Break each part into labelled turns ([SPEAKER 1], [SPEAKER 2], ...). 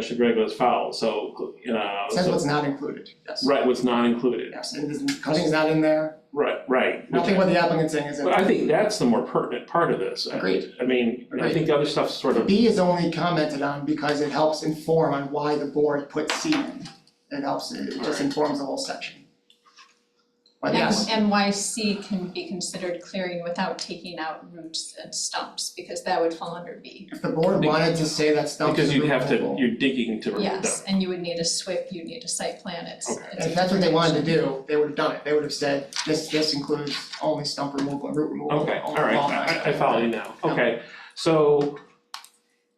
[SPEAKER 1] Mr. Greg was foul, so, uh,
[SPEAKER 2] Says
[SPEAKER 1] so-
[SPEAKER 2] what's not included, yes.
[SPEAKER 1] right, was not included,
[SPEAKER 2] Yes, and this- cutting's not in there,
[SPEAKER 1] right, right.
[SPEAKER 2] nothing what the applicant's saying is in
[SPEAKER 1] But I think that's the more pertinent part of this. I-
[SPEAKER 2] Agreed.
[SPEAKER 1] I mean, I
[SPEAKER 2] Agreed.
[SPEAKER 1] think the other stuff's sort of,
[SPEAKER 2] B is only commented on because it helps inform on why the board put C in. It helps, it it just
[SPEAKER 1] Alright.
[SPEAKER 2] informs the whole section. But
[SPEAKER 3] And
[SPEAKER 2] yes,
[SPEAKER 3] and why C can be considered clearing without taking out roots and stumps, because that would fall under B.
[SPEAKER 2] if the board wanted to say that stump's
[SPEAKER 1] because you'd have to,
[SPEAKER 2] removable,
[SPEAKER 1] you're digging to remove them.
[SPEAKER 3] Yes, and you would need a SWIP, you'd need a site plan, it's
[SPEAKER 1] Okay.
[SPEAKER 3] it's a
[SPEAKER 2] If that's what they wanted to do, they would have done it, they would have said, this this includes only stump removal and root removal.
[SPEAKER 1] Okay, all
[SPEAKER 2] only
[SPEAKER 1] right,
[SPEAKER 2] lawn
[SPEAKER 1] I- I, I
[SPEAKER 2] mowing."
[SPEAKER 1] follow you now,
[SPEAKER 2] Yeah.
[SPEAKER 1] okay, so.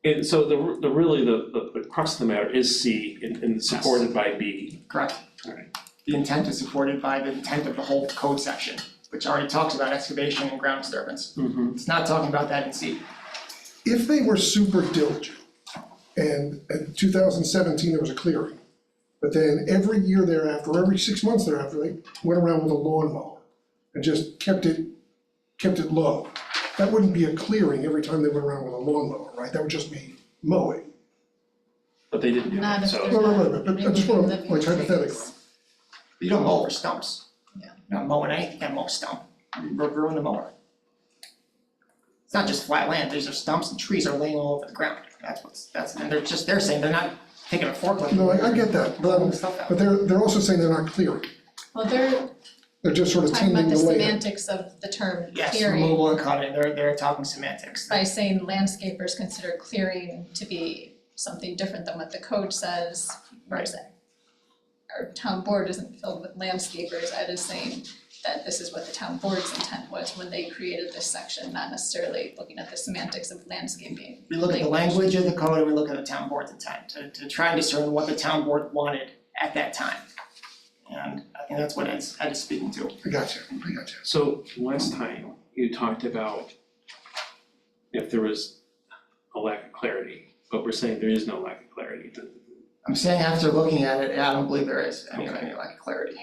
[SPEAKER 1] And so the, the really, the, the- the crux of the matter is C and, and supported by B.
[SPEAKER 2] Correct.
[SPEAKER 1] Alright.
[SPEAKER 2] The intent is supported by the intent of the whole code section, which already talks about excavation and ground disturbance.
[SPEAKER 3] Mm-hmm.
[SPEAKER 2] It's not talking about that in C.
[SPEAKER 4] if they were super diligent, and in two thousand seventeen, there was a clearing, but then every year thereafter, every six months thereafter, they went around with a lawnmower and just kept it, kept it low. That wouldn't be a clearing every time they went around with a lawnmower, right? That would just be mowing.
[SPEAKER 1] But they didn't do
[SPEAKER 3] Not
[SPEAKER 1] it,
[SPEAKER 3] if
[SPEAKER 1] so.
[SPEAKER 3] there's
[SPEAKER 4] No, no,
[SPEAKER 3] not
[SPEAKER 4] no, but- but I just
[SPEAKER 3] removing
[SPEAKER 4] wanna-
[SPEAKER 3] living
[SPEAKER 4] like, hypothetically.
[SPEAKER 3] trees.
[SPEAKER 2] You don't mow over stumps.
[SPEAKER 3] Yeah.
[SPEAKER 2] Not mowing anything, that mow stump, You ru- ruin the mower. It's not just flat land, these are stumps and trees are laying all over the ground, that's what's, that's, and they're just, they're saying they're not taking a forklift.
[SPEAKER 4] No, I, I get that, but
[SPEAKER 2] Pulling
[SPEAKER 4] I'm,
[SPEAKER 2] stuff out.
[SPEAKER 4] but they're, they're also saying they're not clearing,
[SPEAKER 3] Well, they're
[SPEAKER 4] they're just sort of
[SPEAKER 3] talking
[SPEAKER 4] tending
[SPEAKER 3] about
[SPEAKER 4] the
[SPEAKER 3] the
[SPEAKER 4] land.
[SPEAKER 3] semantics of the term
[SPEAKER 2] Yes,
[SPEAKER 3] clearing,
[SPEAKER 2] removal and cutting, they're, they're talking semantics.
[SPEAKER 3] by saying landscapers consider clearing to be something different than what the code says, whereas Our town board isn't filled with landscapers, Ed is saying that this is what the town board's intent was when they created this section, not necessarily looking at the semantics of landscaping.
[SPEAKER 2] We look at the language of the code and we look at the town board's intent to to try and discern what the town board wanted at that time. And I think that's what Ed's Ed is speaking to.
[SPEAKER 4] I got you, I got you.
[SPEAKER 1] So last time you talked about if there was a lack of clarity, but we're saying there is no lack of clarity. The-
[SPEAKER 2] I'm saying after looking at it, yeah, I don't believe there is any any lack of clarity.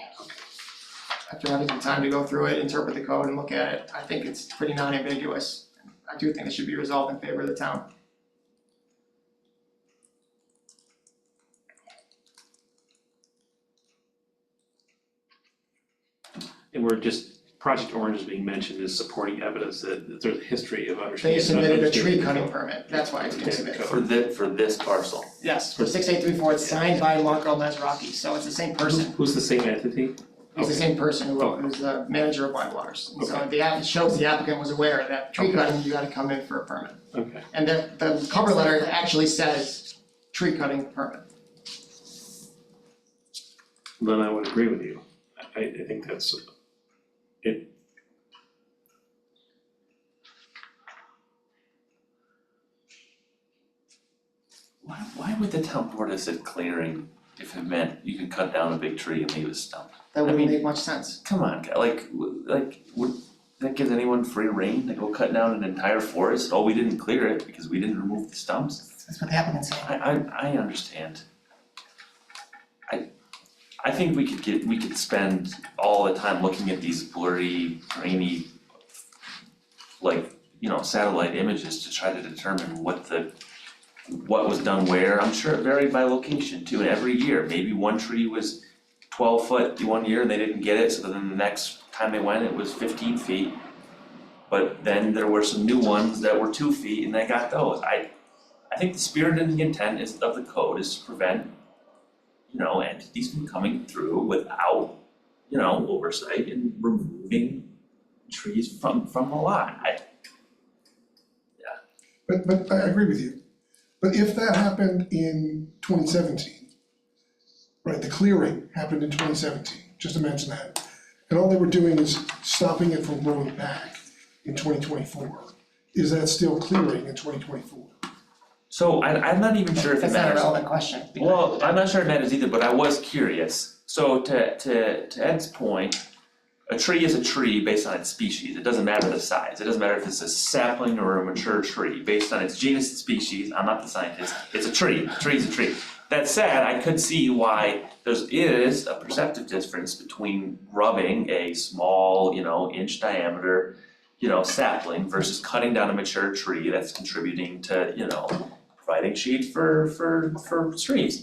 [SPEAKER 2] After having some time to go through it, interpret the code and look at it, I think it's pretty non-ambiguous. I do think it should be resolved in favor of the town.
[SPEAKER 1] And we're just, Project Orange is being mentioned as supporting evidence that that there's a history of understanding.
[SPEAKER 2] They submitted a tree cutting permit, that's why it's being submitted.
[SPEAKER 5] For thi- for this parcel,
[SPEAKER 2] Yes, for six eight three four, it's signed by Marco Mazraki, so it's the same person.
[SPEAKER 1] Who's the same entity?
[SPEAKER 2] It's
[SPEAKER 5] Oh.
[SPEAKER 2] the
[SPEAKER 1] Okay.
[SPEAKER 2] same person who
[SPEAKER 1] Okay.
[SPEAKER 2] who's the manager of Whitewaters. And so
[SPEAKER 1] Okay.
[SPEAKER 2] the app, it shows the applicant was aware that tree
[SPEAKER 1] Okay.
[SPEAKER 2] cutting, you gotta come in for a permit.
[SPEAKER 1] Okay,
[SPEAKER 2] And the the cover letter
[SPEAKER 3] Exactly.
[SPEAKER 2] actually says tree cutting permit.
[SPEAKER 1] then I would agree with you. I, I think that's,
[SPEAKER 5] why why would the town board have said clearing if it meant you could cut down a big tree and leave a stump?
[SPEAKER 2] That
[SPEAKER 5] I
[SPEAKER 2] wouldn't
[SPEAKER 5] mean-
[SPEAKER 2] make much sense.
[SPEAKER 5] Come on, guy, like, w- like, would, that gives anyone free reign to go cut down an entire forest? Oh, we didn't clear it because we didn't remove the stumps?
[SPEAKER 2] That's what the applicant said.
[SPEAKER 5] I I I understand. I I think we could get, we could spend all the time looking at these blurry, grainy like, you know, satellite images to try to determine what the, what was done where. I'm sure it varied by location too, and every year, maybe one tree was twelve foot one year and they didn't get it, so then the next time they went, it was fifteen feet. But then there were some new ones that were two feet and they got those. I, I think the spirit and the intent is, of the code is to prevent, you know, entities from coming through without, you know, oversight and removing trees from from the lot. I
[SPEAKER 4] But, but I agree with you. But if that happened in twenty seventeen, right, the clearing happened in twenty seventeen, just imagine that. And all they were doing is stopping it from growing back in twenty twenty-four. Is that still clearing in twenty twenty-four?
[SPEAKER 5] so I I'm not even sure if it
[SPEAKER 2] That's not a
[SPEAKER 5] matters.
[SPEAKER 2] relevant question. because-
[SPEAKER 5] Well, I'm not sure it matters either, but I was curious. So to to to Ed's point, a tree is a tree based on its species. It doesn't matter the size. It doesn't matter if it's a sapling or a mature tree, based on its genus and species. I'm not the scientist. It's a tree. A tree's a tree. That said, I could see why there is a perceptive difference between rubbing a small, you know, inch diameter, you know, sapling versus cutting down a mature tree that's contributing to, you know, providing shade for for for streams.